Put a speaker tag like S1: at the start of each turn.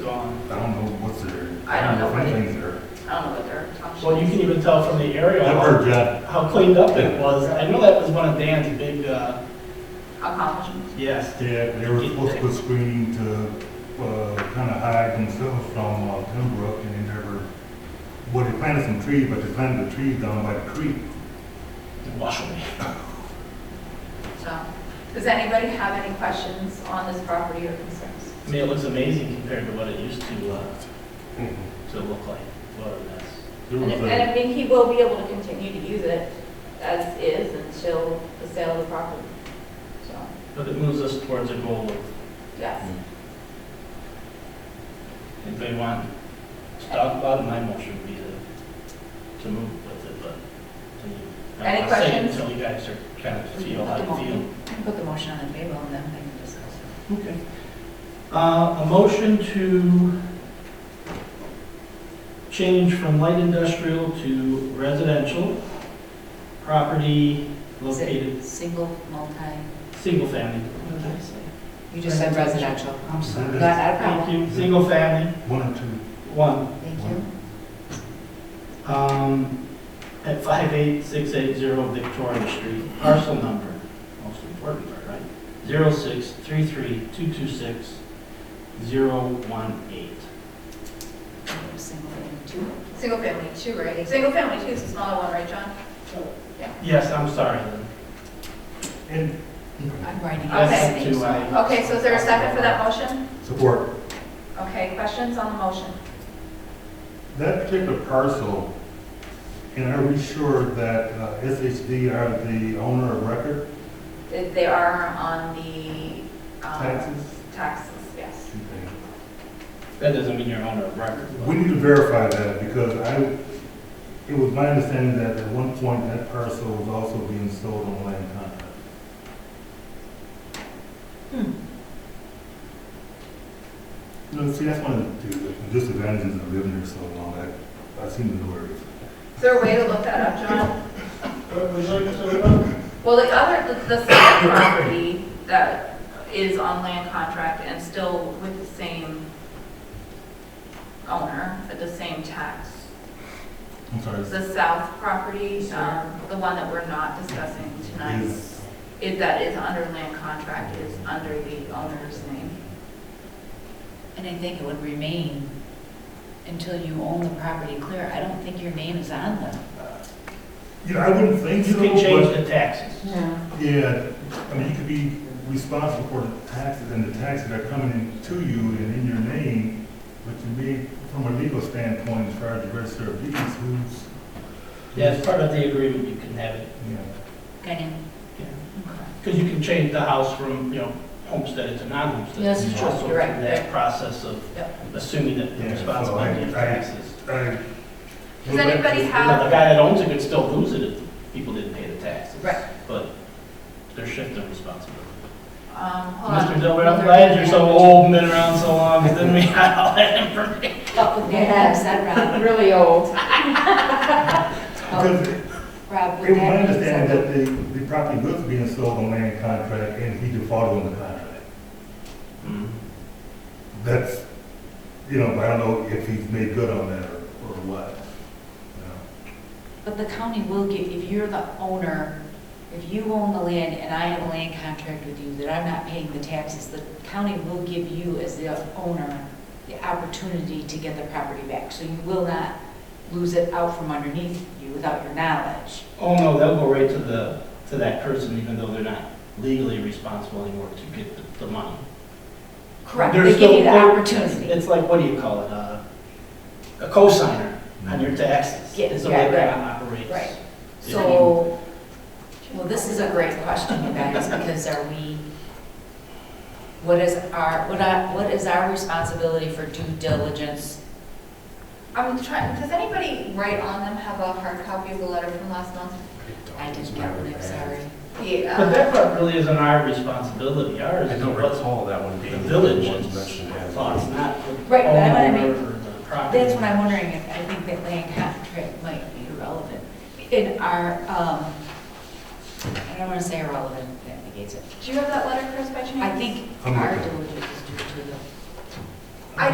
S1: gone.
S2: I don't know what's there.
S3: I don't know what it-
S2: Things there.
S3: I don't know what their options.
S1: Well, you can even tell from the aerial
S2: That
S1: how-
S2: bird got,
S1: how cleaned up it was. I know that was one of Dan's big, uh,
S3: Accomplishments.
S1: yes.
S2: yeah, they were supposed to put screening to, uh, kind of hide themselves from uh, timber up and they never, well, they planted some trees, but they planted the trees down by the creek.
S1: Wow.
S3: So, does anybody have any questions on this property or concerns?
S1: I mean, it looks amazing compared to what it used to, uh,
S2: Mm-hmm.
S1: to look like, what it is.
S2: There
S3: And
S2: was
S3: if-
S2: a-
S3: and I think he will be able to continue to use it as is until the sale of the property. So,
S1: But it moves us towards a goal of,
S3: yes.
S1: if they want to talk about it, my motion would be to, to move with it, but. I mean, I'm
S3: Any
S1: not saying
S3: questions?
S1: Until you guys are kind of feel how
S3: Put the
S1: you feel.
S3: motion- Put the motion on the table and then we can discuss it.
S1: Okay. Uh, A motion to change from light industrial to residential property located,
S4: Single, multi,
S1: single family.
S4: you just said residential.
S1: I'm sorry.
S4: Not out of
S1: Thank
S4: problem.
S1: you, single family,
S2: uh, One or two.
S1: one,
S4: Thank you.
S1: um, at 58680 Victoria Street, parcel number, most important part, right? 0633226-018.
S4: Single and two.
S3: Single family, two,
S4: right?
S3: Single family, two is the smaller one, right, John?
S1: Yes, I'm sorry.
S2: And
S4: I'm writing.
S3: Okay.
S1: Yes, to, uh,
S3: Okay, so is there a second for that motion?
S2: support.
S3: Okay, questions on the motion?
S2: That particular parcel, and are we sure that uh, SHD are the owner of record
S3: They they are on the, um,
S2: taxes?
S3: taxes, yes.
S1: That doesn't mean you're on a record. but-
S2: We need to verify that because I, it was my understanding that at one point that parcel was also being sold on land contract.
S1: Hmm.
S2: No, see, that's one of the the disadvantages of living here so long, I, I seem to know where it is.
S3: Is there a way to look that up, John?
S1: Well,
S3: Well, the other, the- the second property that is on land contract and still with the same owner, at the same tax,
S2: I'm sorry.
S3: the south property, um, the one that we're not discussing tonight,
S2: Is-
S3: is that is under land contract, is under the owner's name.
S4: And I think it would remain until you own the property clear. I don't think your name is on them.
S2: You know, I wouldn't think
S1: You
S2: so,
S1: can
S2: but
S1: change the taxes.
S4: No.
S2: Yeah, I mean, you could be responsible for the taxes and the taxes that are coming in to you and in your name, but to me, from a legal standpoint, as far as the register of deeds, who's?
S1: Yeah, as part of the agreement, you can have it.
S2: Yeah,
S4: Kind of.
S1: Because you can change the house from, you know, homesteaded to non-homestead.
S4: Yes,
S1: It's
S2: true.
S1: also
S3: You're right.
S1: That process of assuming that the
S2: Yeah, so
S1: responsibility of
S2: I- I-
S1: taxes.
S2: I-
S3: Does anybody
S1: You know, the
S3: have,
S1: guy that owns it could still lose it if people didn't pay the taxes.
S3: Right.
S1: But they're shifting responsibility.
S3: um, hold on.
S1: Mr. Dilbert, I'm glad you're so old and been around so long, because then we had all that information.
S4: Yeah, is that Rob?
S5: really old.
S2: Because it
S4: Rob,
S2: it
S4: would
S2: was my
S4: that be
S2: understanding
S4: something?
S2: that the, the property was being sold on land contract and he defaulted on the contract.
S3: Mm-hmm.
S2: That's, you know, I don't know if he's made good on that or, or what. you know.
S4: But the county will give, if you're the owner, if you own the land and I have a land contract with you that I'm not paying the taxes, the county will give you as the owner the opportunity to get the property back. So you will not lose it out from underneath you without your knowledge.
S1: Oh, no, they'll go right to the, to that person, even though they're not legally responsible anymore to get the, the money.
S4: Correct,
S1: They're
S4: they give
S1: still-
S4: you the
S1: they're-
S4: opportunity.
S1: It's like, what do you call it, uh, a cosigner on your taxes,
S4: Yeah,
S1: is the
S4: yeah,
S1: way that
S4: right.
S1: operates.
S4: Right.
S1: If
S4: So, well, this is a great question, you guys, because are we, what is our, what I- what is our responsibility for due diligence
S3: I'm trying, does anybody right on them have a hard copy of the letter from last month?
S4: I didn't get one, I'm sorry.
S3: The,
S1: But
S3: uh,
S1: that part really isn't our responsibility, ours
S6: I
S1: is
S6: don't
S1: what's
S6: recall that one being.
S1: the village's
S6: one mentioned as-
S1: thoughts, not the
S4: Right, but I wanna make-
S1: homeowner or the property.
S4: That's what I'm wondering, if I think that land contract might be irrelevant. In our, um, I don't want to say irrelevant, that negates it.
S3: do you have that letter, Chris, by chance?
S4: I think
S2: I'm
S4: our
S2: looking.
S4: diligence is due to the